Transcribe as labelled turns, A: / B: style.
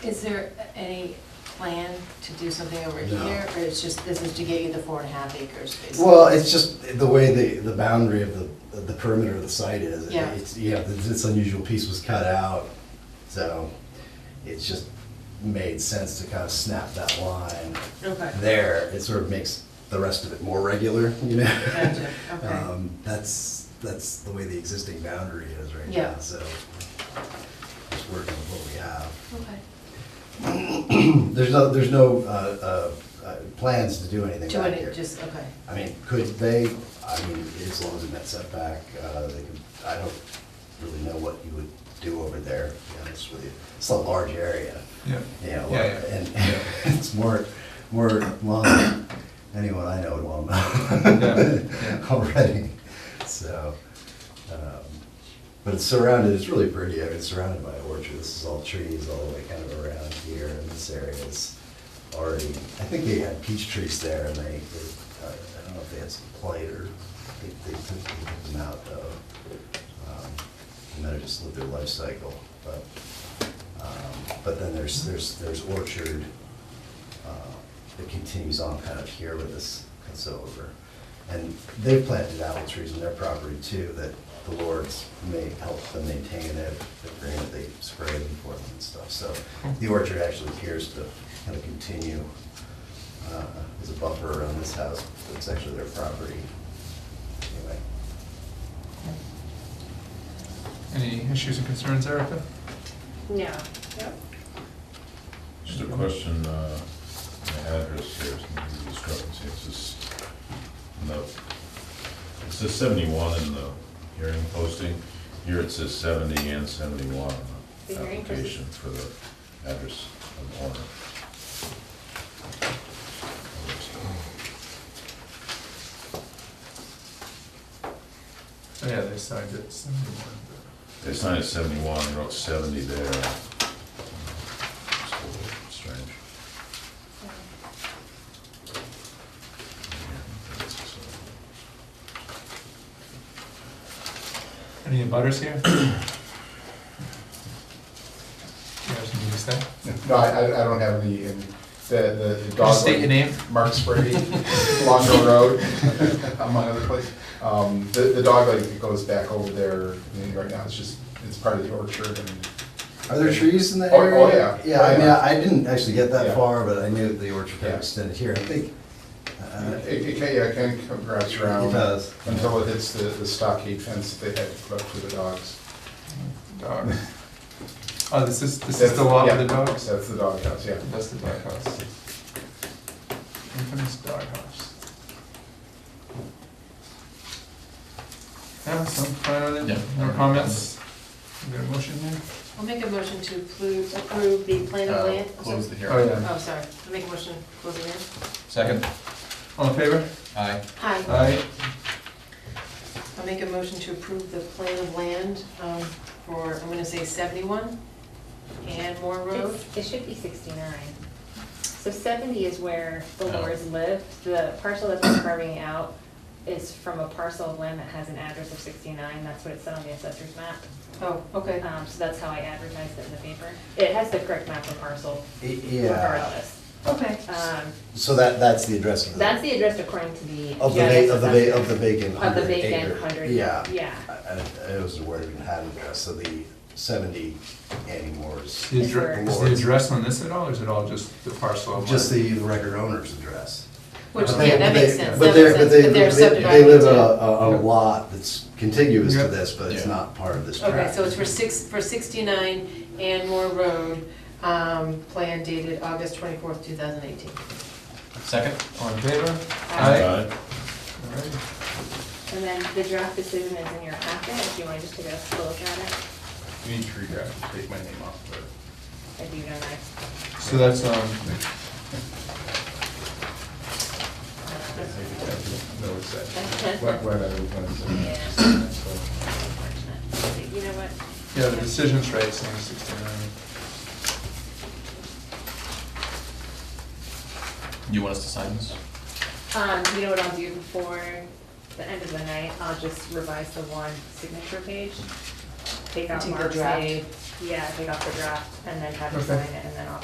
A: Is there any plan to do something over
B: No.
A: here, or it's just, this is to get you the four and a half acres, basically?
B: Well, it's just the way the, the boundary of the, the perimeter of the site is.
A: Yeah.
B: It's, yeah, th- this unusual piece was cut out, so it just made sense to kind of snap that line
A: Okay.
B: there. It sort of makes the rest of it more regular, you know?
A: Gotcha, okay.
B: Um, That's, that's the way the existing boundary is right
A: Yeah.
B: now, so just working with what we have.
A: Okay.
B: There's no, there's no uh, uh, uh, plans to do anything
A: Doing
B: back here.
A: it, just, okay.
B: I mean, could they, I mean, as long as it met setback, uh, they could, I don't really know what you would do over there, to be honest with you. It's a large area,
C: Yeah.
B: you know,
C: Yeah, yeah.
B: and it's more, more lawn than anyone I know would want
C: Yeah, yeah.
B: already, so. um, But it's surrounded, it's really pretty, I mean, it's surrounded by orchard, this is all trees all the way kind of around here, and this area is already, I think they had peach trees there, and they, they- uh, I don't know if they had some plate or, they, they took they took them out though. Um, And then it just lived their life cycle, but, um, but then there's, there's, there's orchard uh, that continues on kind of here with this, cuts over. And they've planted apple trees on their property too, that the Lord's may help them maintain it, the green that they spray them for them and stuff. So the orchard actually appears to kind of continue uh, as a buffer around this house, but it's actually their property. Anyway,
C: Any issues and concerns, Erica?
A: No.
D: Just a question, uh, the address here, some discrepancy, it's just, no, it says seventy-one in the hearing posting, here it says seventy and seventy-one on
E: The
D: the
E: hearing posting.
D: application for the address of owner.
C: Oh, yeah, they signed it, seventy-one,
D: They signed it seventy-one, they wrote seventy there. It's a little strange.
C: but- Any butters here? Do you have something to say?
F: No, I, I I don't have any, and the, the- the dog.
C: Just state your name.
F: Mark Sprady, Longo Road, among other places. Um, the, the dog like goes back over there, I mean, right now, it's just, it's part of the orchard and.
B: Are there trees in the
F: Oh-
B: area?
F: oh, yeah.
B: Yeah, I
F: Oh,
B: mean,
F: yeah.
B: I didn't actually get that
F: Yeah.
B: far, but I knew that the orchard kind
F: Yeah.
B: of extended here. I think, uh,
F: It, it can, yeah, it can come wraps around.
B: It does.
F: Until it hits the, the stockade fence that they had to put up for the dogs.
C: Dogs. Oh, this is, this is the law of the
F: Yeah,
C: dogs?
F: That's the dog house, yeah.
C: That's the dog house. Infamous dog house. Yeah, some fine on it, no comments? You got a motion there?
A: I'll make a motion to approve,
E: approve the plan of
G: Uh,
E: land.
G: Close the
C: Oh,
G: hearing.
C: yeah.
A: oh, sorry, I'll make a motion, to close it in.
G: Second?
C: All in favor?
G: Aye.
A: Hi,
C: Aye.
A: I'll make a motion to approve the plan of land um, for, I'm gonna say seventy-one and Moore Road.
E: It's- It should be 69. So 70 is where the
G: Oh.
E: Lores lived. The parcel that's been carving out is from a parcel of land that has an address of 69. That's what it said on the assessor's map.
A: Oh, okay.
E: Um, So that's how I advertised it in the paper. It has the correct map and parcel
B: Yeah,
E: regardless.
A: Okay.
E: Um,
B: so that, that's the address of the.
E: That's the address according to the.
B: Of the, va- of the, va- of the vacant
E: Of the
B: hundred acre.
E: vacant 100.
B: Yeah.
E: Yeah.
B: I, I- I was aware it even had an address, so the seventy Annie Moore's,
C: Is the addre- is the address on this at all, or is it all just the parcel? of
B: just
C: land?
B: the record owner's address.
A: Which,
B: But
A: yeah,
B: they-
A: that
B: but
A: makes
B: they-
A: sense,
B: But
A: that
B: they're,
A: makes sense,
B: but they,
A: but
B: they,
A: they're
B: they
A: subdividing
B: live
A: too.
B: on a, a- a lot that's contiguous
C: Yeah.
B: to this, but it's
G: Yeah.
B: not part of this tract.
A: Okay, so it's for six, for sixty-nine and Moore Road, um, plan dated August twenty-fourth, two thousand eighteen.
G: Second?
C: All in favor?
D: Aye.
C: All right.
E: And then the draft decision is in your packet if you want to just take a look at it.
G: You need to redraft, take my name off of it.
E: I do know that.
C: So that's, um,
F: No, it's that.
E: Unfortunate.
F: Wet, wet, every
E: Yeah.
F: fence.
E: You know what?
C: yeah, the decision's right, saying sixty-nine.
G: You want us to sign this?
E: Um, you know what I'll do before the end of the night? I'll just revise the one signature page. Take out
A: Take the
E: Mark's
A: draft.
E: name. Yeah, take off the draft and then have him
C: Okay.
E: sign it.